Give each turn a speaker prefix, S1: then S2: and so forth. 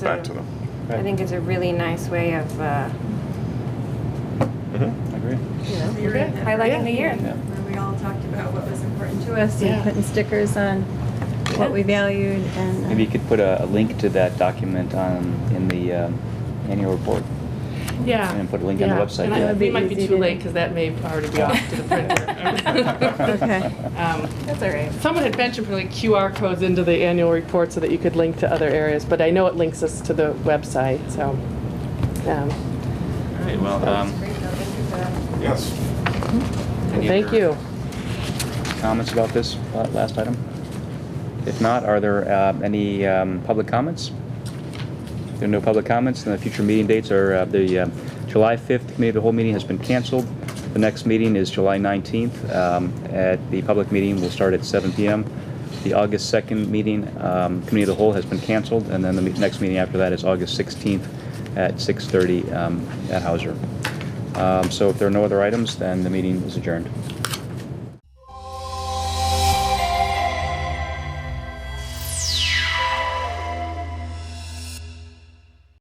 S1: back to
S2: a-
S1: them.
S2: I think it's a really nice way of, uh,
S1: Mhm.
S3: Agree.
S2: you know,
S4: Reiterating that.
S2: highlighting the year.
S3: Yeah.
S4: Where we all talked about what was important to us
S5: Yeah.
S4: and putting stickers on what we valued and. uh,
S3: Maybe you could put a, a link to that document on, in the um, annual report.
S6: Yeah.
S3: And put a link on the
S6: yeah.
S3: website,
S6: And I-
S3: yeah.
S6: We might
S4: Be
S6: be
S4: easy
S6: too
S4: to-
S6: late because that may already be off to the printer.
S4: Okay.
S6: Um,
S4: That's all right.
S6: Someone had mentioned putting QR codes into the annual report so that you could link to other areas, but I know it links us to the website, so. um,
S3: All right, well, um,
S4: Great, no, thank you for that.
S1: Yes.
S3: Any
S6: Thank
S3: other-
S6: you.
S3: comments about this uh, last item? If not, are there uh, any um, public comments? If there are no public comments, then the future meeting dates are, uh, the uh, July 5th Committee of the Whole meeting has been canceled. The next meeting is July 19th. Um, At the public meeting, will start at 7 PM. The August 2nd meeting, um, Committee of the Whole has been canceled, and then the me- next meeting after that is August 16th at 6:30 um, at Hauser. Um, So if there are no other items, then the meeting is adjourned.